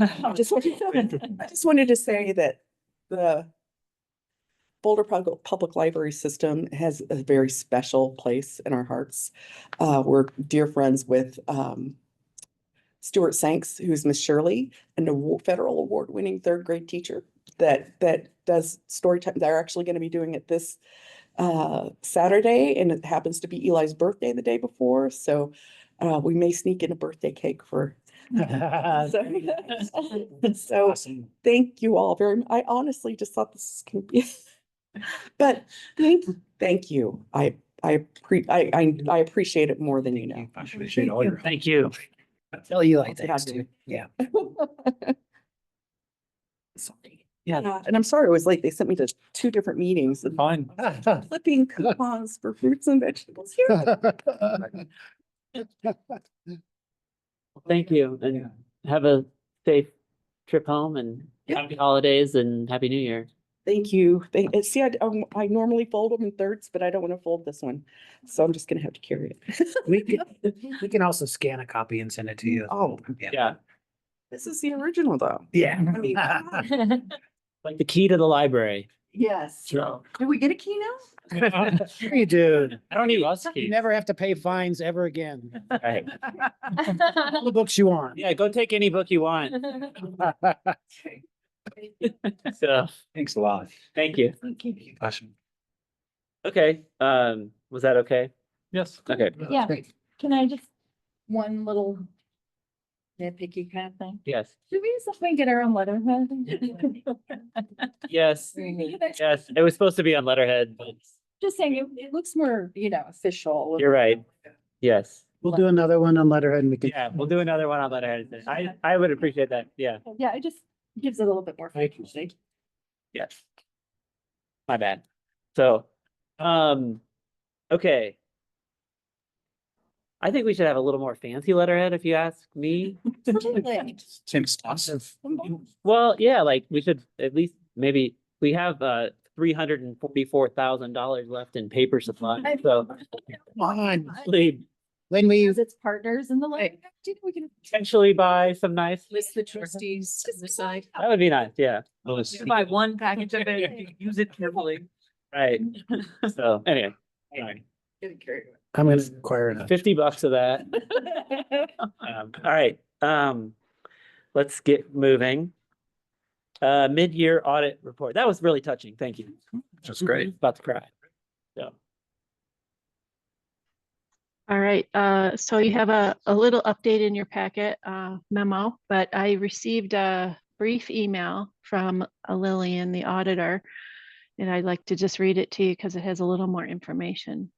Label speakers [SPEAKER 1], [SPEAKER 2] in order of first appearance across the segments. [SPEAKER 1] I just wanted, I just wanted to say that the Boulder Public, Public Library System has a very special place in our hearts. Uh, we're dear friends with, um, Stuart Sanks, who's Miss Shirley, an awa- federal award-winning third grade teacher that, that does story time. They're actually going to be doing it this, uh, Saturday, and it happens to be Eli's birthday the day before, so, uh, we may sneak in a birthday cake for Sorry. So
[SPEAKER 2] Awesome.
[SPEAKER 1] thank you all very, mu- I honestly just thought this can be. But thank, thank you. I, I pre, I, I, I appreciate it more than you know.
[SPEAKER 2] I
[SPEAKER 3] Appreciate all your help.
[SPEAKER 2] Thank you. Tell you like
[SPEAKER 1] That's what
[SPEAKER 2] that
[SPEAKER 1] I
[SPEAKER 2] too. Yeah.
[SPEAKER 1] Sorry.
[SPEAKER 2] Yeah.
[SPEAKER 1] Uh, And I'm sorry I was late. They sent me to two different meetings and
[SPEAKER 3] Fine.
[SPEAKER 1] flipping coupons for fruits and vegetables here.
[SPEAKER 4] Thank you and have a safe trip home and
[SPEAKER 1] Yeah.
[SPEAKER 4] happy holidays and happy new year.
[SPEAKER 1] Thank you. Thank, uh, see, I, d- um, I normally fold them in thirds, but I don't want to fold this one. So I'm just gonna have to carry it.
[SPEAKER 2] We can, we can also scan a copy and send it to you.
[SPEAKER 1] Oh.
[SPEAKER 4] Yeah.
[SPEAKER 1] This is the original though. I mean, come
[SPEAKER 2] Yeah.
[SPEAKER 1] on.
[SPEAKER 4] Like the key to the library.
[SPEAKER 1] Yes.
[SPEAKER 4] So.
[SPEAKER 1] Do we get a key now?
[SPEAKER 2] Sure you do.
[SPEAKER 4] I don't need us
[SPEAKER 2] You
[SPEAKER 4] keys.
[SPEAKER 2] never have to pay fines ever again.
[SPEAKER 4] Right.
[SPEAKER 2] All the books you want.
[SPEAKER 4] Yeah, go take any book you want. So,
[SPEAKER 3] Thanks a lot.
[SPEAKER 4] thank you.
[SPEAKER 3] Passion.
[SPEAKER 4] Okay, um, was that okay?
[SPEAKER 3] Yes.
[SPEAKER 4] Okay.
[SPEAKER 5] Yeah.
[SPEAKER 2] Great.
[SPEAKER 5] Can I just, one little nitpicky kind of thing?
[SPEAKER 4] Yes,
[SPEAKER 5] Should we just like get our own letterhead?
[SPEAKER 4] yes, yes. It was supposed to be on letterhead, but
[SPEAKER 5] Just saying, it, it looks more, you know, official.
[SPEAKER 4] You're right. yes.
[SPEAKER 2] We'll do another one on letterhead and we can.
[SPEAKER 4] Yeah, we'll do another one on letterhead. I, I would appreciate that. Yeah,
[SPEAKER 5] Yeah, it just gives it a little bit more.
[SPEAKER 2] Thank you.
[SPEAKER 5] fancy.
[SPEAKER 4] yes. My bad. So, um, okay. I think we should have a little more fancy letterhead if you ask me.
[SPEAKER 5] Absolutely.
[SPEAKER 3] Tim's awesome.
[SPEAKER 4] Well, yeah, like we should at least maybe we have uh three hundred and forty-four thousand dollars left in paper supply.
[SPEAKER 5] I-
[SPEAKER 4] So
[SPEAKER 2] Come on.
[SPEAKER 4] we
[SPEAKER 2] When we,
[SPEAKER 5] Because it's partners in the library. We can
[SPEAKER 4] potentially buy some nice,
[SPEAKER 6] List the trustees to the side.
[SPEAKER 4] that would be nice. Yeah,
[SPEAKER 6] Buy one package of it, use it carefully.
[SPEAKER 4] right. So anyway,
[SPEAKER 6] Getting carried away.
[SPEAKER 2] I'm gonna acquire it.
[SPEAKER 4] fifty bucks of that. Um, all right, um, let's get moving. Uh, mid-year audit report. That was really touching. Thank you.
[SPEAKER 3] That's great.
[SPEAKER 4] About to cry.
[SPEAKER 7] All right, uh, so you have a, a little update in your packet uh, memo, but I received a brief email from uh, Lillian, the auditor. And I'd like to just read it to you because it has a little more information.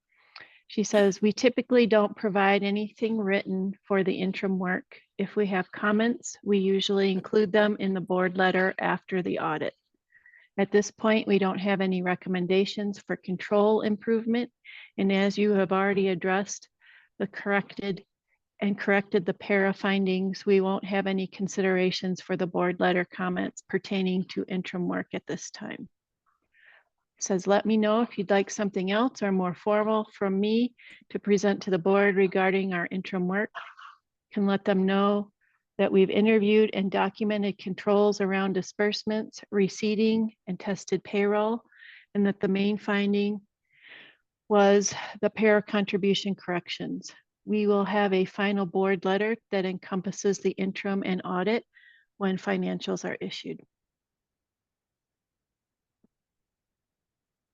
[SPEAKER 7] She says, we typically don't provide anything written for the interim work. If we have comments, we usually include them in the board letter after the audit. At this point, we don't have any recommendations for control improvement. And as you have already addressed, the corrected and corrected the para findings, we won't have any considerations for the board letter comments pertaining to interim work at this time. Says, let me know if you'd like something else or more formal from me to present to the board regarding our interim work. Can let them know that we've interviewed and documented controls around disbursements, receding, and tested payroll, and that the main finding was the pair contribution corrections. We will have a final board letter that encompasses the interim and audit when financials are issued.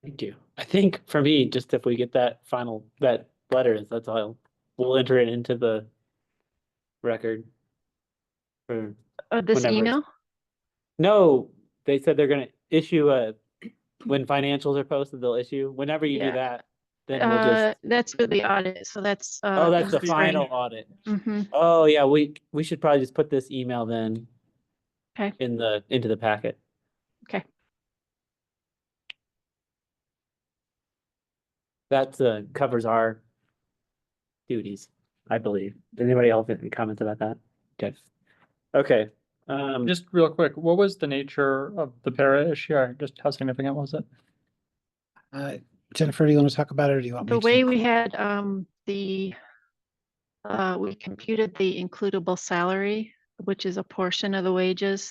[SPEAKER 4] Thank you. I think for me, just if we get that final, that letter, that's all, we'll enter it into the record. Or,
[SPEAKER 7] Uh, this
[SPEAKER 4] Whenever it's-
[SPEAKER 7] email,
[SPEAKER 4] no, they said they're gonna issue a, when financials are posted, they'll issue, whenever you do
[SPEAKER 7] Yeah.
[SPEAKER 4] that, then we'll
[SPEAKER 7] uh,
[SPEAKER 4] just,
[SPEAKER 7] that's for the audit, so that's. uh,
[SPEAKER 4] oh, that's the
[SPEAKER 7] in spring.
[SPEAKER 4] final audit.
[SPEAKER 7] Mhm.
[SPEAKER 4] Oh, yeah, we, we should probably just put this email then.
[SPEAKER 7] 'Kay.
[SPEAKER 4] In the, into the packet.
[SPEAKER 7] 'Kay.
[SPEAKER 4] That uh, covers our duties, I believe. Does anybody else have any comments about that? Good. Okay, um,
[SPEAKER 8] Just real quick, what was the nature of the para issue? Or Just how significant was it?
[SPEAKER 2] Uh, Jennifer, do you want to talk about it or do you want me
[SPEAKER 7] The
[SPEAKER 2] to?
[SPEAKER 7] way we had um, the, uh, we computed the includable salary which is a portion of the wages